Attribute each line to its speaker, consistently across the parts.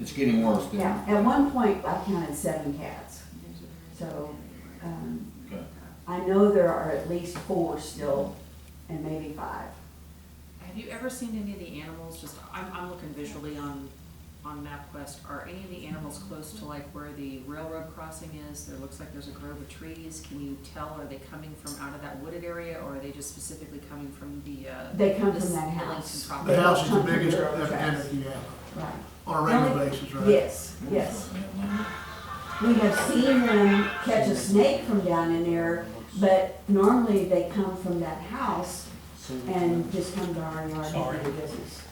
Speaker 1: It's getting worse, then.
Speaker 2: Yeah, at one point, I counted seven cats. So, um,
Speaker 1: Okay.
Speaker 2: I know there are at least four still, and maybe five.
Speaker 3: Have you ever seen any of the animals, just, I'm, I'm looking visually on, on MapQuest, are any of the animals close to like where the railroad crossing is? There looks like there's a grove of trees, can you tell, are they coming from out of that wooded area, or are they just specifically coming from the, uh?
Speaker 2: They come
Speaker 3: this-
Speaker 2: from that
Speaker 3: the
Speaker 2: house.
Speaker 3: Lincoln
Speaker 4: The
Speaker 3: property?
Speaker 4: house is the biggest epidemic you have
Speaker 2: Right.
Speaker 4: uh, on a regular basis, right?
Speaker 2: Yes, yes. We have seen them catch a snake from down in there, but normally they come from that house and just come to our yard and do business.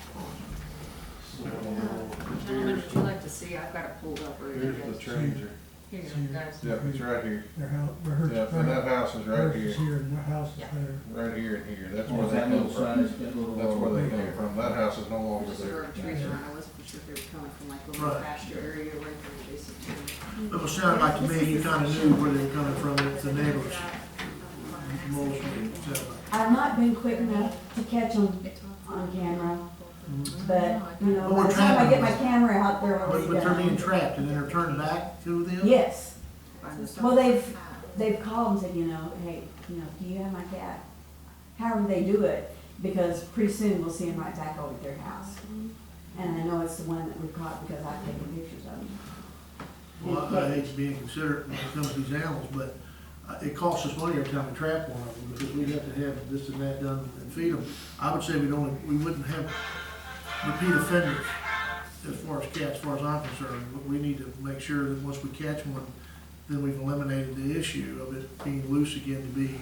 Speaker 3: Gentlemen, would you like to see, I've got it pulled up, or you
Speaker 5: Here's the
Speaker 3: guys,
Speaker 5: stranger.
Speaker 3: here, you
Speaker 6: Here.
Speaker 3: go, guys.
Speaker 5: Yep, it's right here.
Speaker 6: Their house, their hers,
Speaker 5: Yep, and that
Speaker 6: their
Speaker 5: house is right
Speaker 6: hers
Speaker 5: here,
Speaker 6: is here and their house is
Speaker 3: Yeah.
Speaker 6: there.
Speaker 5: right here and here. That's where
Speaker 1: Or
Speaker 5: they
Speaker 1: that
Speaker 5: come
Speaker 1: little
Speaker 5: from.
Speaker 1: size, that little.
Speaker 5: That's where they come from. That house is no longer
Speaker 3: There's a grove
Speaker 5: there.
Speaker 3: of trees around, I wasn't sure if they were coming from like a little
Speaker 4: Right.
Speaker 3: pasture area, or adjacent to.
Speaker 4: It was sounding like to me, you kinda knew where they were coming from, it's the neighbors, mostly, it sounded like.
Speaker 2: I've not been quick enough to catch them on camera, but, you know,
Speaker 4: But we're
Speaker 2: by the time I
Speaker 4: trapping
Speaker 2: get my
Speaker 4: them.
Speaker 2: camera out there, I'll
Speaker 4: But,
Speaker 2: be
Speaker 4: but they're being
Speaker 2: done.
Speaker 4: trapped and then they're turning back to them?
Speaker 2: Yes, well,
Speaker 3: Well,
Speaker 2: they've, they've called and said, you know, hey, you know, do you have my cat? However they do it, because pretty soon we'll see them right back over at their house. And I know it's the one that we caught because I've taken pictures of them.
Speaker 4: Well, I hate to be inconsiderate when it comes to these animals, but uh, it costs us money every time we trap one of them, because we have to have this and that done and feed them. I would say we'd only, we wouldn't have repeat offenders as far as cats, as far as I'm concerned, but we need to make sure that once we catch one, then we've eliminated the issue of it being loose again to be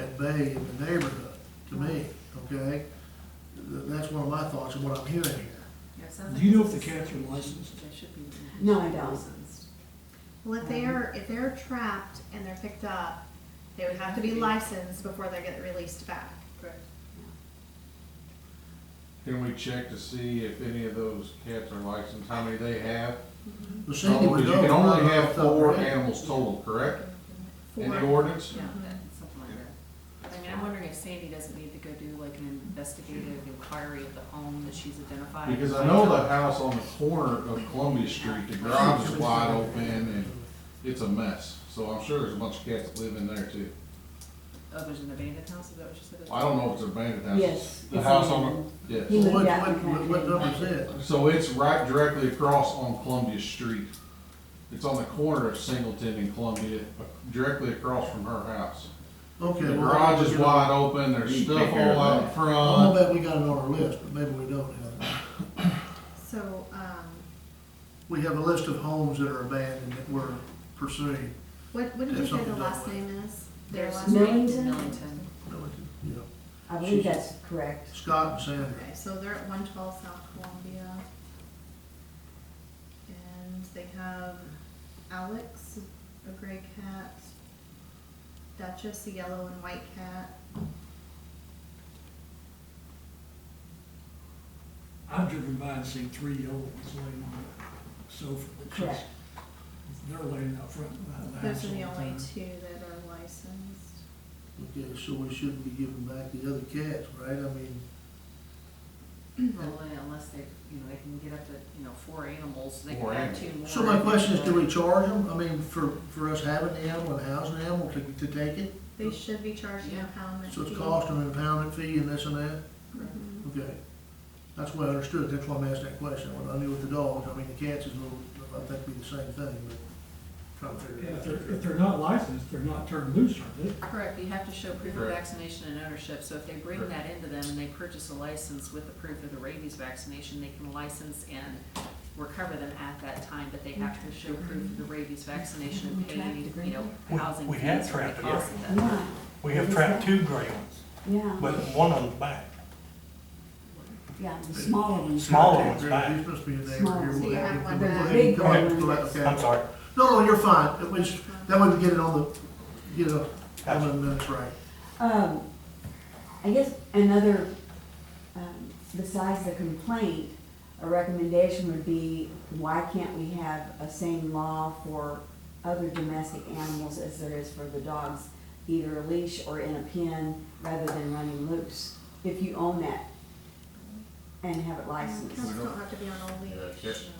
Speaker 4: at bay in the neighborhood, to me, okay? Th- That's one of my thoughts and what I'm hearing here.
Speaker 7: Do you know if the cats are licensed?
Speaker 3: They should be.
Speaker 2: No, I don't.
Speaker 3: licensed.
Speaker 8: Well, if they are, if they're trapped and they're picked up, they would have to be licensed before they get released back.
Speaker 5: Can we check to see if any of those cats are licensed, how many they have?
Speaker 4: The Sandy
Speaker 5: Because
Speaker 4: would
Speaker 5: you
Speaker 4: know
Speaker 5: can
Speaker 4: if
Speaker 5: only
Speaker 4: we're
Speaker 5: have
Speaker 4: off the top of
Speaker 5: four
Speaker 4: our head.
Speaker 5: animals total, correct?
Speaker 8: For-
Speaker 5: In the ordinance?
Speaker 3: Yeah, that- something like that. I mean, I'm wondering if Sandy doesn't need to go do like an investigative inquiry of the home that she's identified.
Speaker 5: Because I know the house on the corner of Columbia Street, the garage is wide open and it's a mess. So I'm sure there's a bunch of cats that live in there too.
Speaker 3: Oh, there's an abandoned house, is that what you said?
Speaker 5: I don't know if it's abandoned house.
Speaker 2: Yes,
Speaker 5: The
Speaker 2: it's
Speaker 5: house on, the yes.
Speaker 2: He
Speaker 4: Well,
Speaker 2: moved
Speaker 4: What,
Speaker 2: out in
Speaker 4: what,
Speaker 2: the
Speaker 4: what- what
Speaker 2: country.
Speaker 4: number is that?
Speaker 5: So it's right directly across on Columbia Street. It's on the corner of Singleton and Columbia, uh, directly across from her house.
Speaker 4: Okay.
Speaker 5: The
Speaker 4: well,
Speaker 5: garage
Speaker 4: we
Speaker 5: is
Speaker 4: got-
Speaker 5: wide open, there's
Speaker 1: You can
Speaker 5: stuff
Speaker 1: take care of
Speaker 5: all out in
Speaker 1: that.
Speaker 4: I'll
Speaker 5: front.
Speaker 4: bet we got it on our list, but maybe we don't have it.
Speaker 8: So, um,
Speaker 4: We have a list of homes that are abandoned that we're pursuing.
Speaker 8: what, what did you
Speaker 4: There's
Speaker 8: say the
Speaker 4: something
Speaker 8: last
Speaker 4: going
Speaker 8: name is? Their
Speaker 3: There's
Speaker 8: last name?
Speaker 2: Millington?
Speaker 3: Millington.
Speaker 4: No, we didn't, you know,
Speaker 2: I believe that's correct.
Speaker 4: Scott and Sandra.
Speaker 8: Okay, so they're at one twelve South Columbia. And they have Alex, a gray cat, Duchess, a yellow and white cat.
Speaker 7: I've driven by and seen three old ones laying on the sofa. It's just-
Speaker 2: Correct.
Speaker 7: They're laying out front behind the house
Speaker 8: Those are the
Speaker 7: all the
Speaker 8: only
Speaker 7: time.
Speaker 8: two that are licensed.
Speaker 4: Okay, so we shouldn't be giving back the other cats, right? I mean,
Speaker 3: Well, Unless they, you know, they can get up to, you know, four animals, they
Speaker 5: Four
Speaker 3: can add
Speaker 5: animals.
Speaker 3: two more.
Speaker 4: so my question is, do we charge them? I mean, for, for us having the animal and housing the animal to, to take it?
Speaker 8: They should be charging
Speaker 3: Yeah.
Speaker 8: a pound.
Speaker 4: So it's cost and impoundment fee and this and that?
Speaker 8: Mm-hmm.
Speaker 4: Okay. That's what I understood. That's why I'm asking that question. When I knew with the dogs, I mean, the cats is a little, I think be the same thing, but trying to figure
Speaker 7: Yeah,
Speaker 4: it
Speaker 7: If
Speaker 4: out.
Speaker 7: they're, if they're not licensed, they're not turned loose, are they?
Speaker 3: Correct, you have to show proof of
Speaker 5: Correct.
Speaker 3: vaccination and ownership, so if they bring that into them and they purchase a license with the proof of the rabies vaccination, they can license and recover them at that time, but they have to show proof of the rabies vaccination and pay any, you know,
Speaker 9: We-
Speaker 3: housing
Speaker 9: we had
Speaker 3: fees or the
Speaker 9: trapped
Speaker 3: cost of that.
Speaker 2: Yeah,
Speaker 9: We have trapped two gray ones,
Speaker 2: yeah,
Speaker 9: but one on the back.
Speaker 2: yeah, the smaller ones.
Speaker 9: Smaller ones back.
Speaker 4: He's supposed to be a neighbor here.
Speaker 2: Smaller.
Speaker 4: We'll
Speaker 8: So you
Speaker 4: have
Speaker 8: have
Speaker 4: you
Speaker 8: one uh,
Speaker 4: go ahead
Speaker 8: back.
Speaker 4: and come back
Speaker 2: Big
Speaker 4: to
Speaker 2: one.
Speaker 4: that, okay.
Speaker 9: I'm sorry.
Speaker 4: No, no, you're fine. It was, that way we get it on the, get it on the minutes right.
Speaker 2: Um, I guess another, um, besides the complaint, a recommendation would be, why can't we have a same law for other domestic animals as there is for the dogs? Either a leash or in a pen, rather than running loose, if you own that and have it licensed.
Speaker 8: Cats don't have to be on a leash.
Speaker 5: Yeah, cats-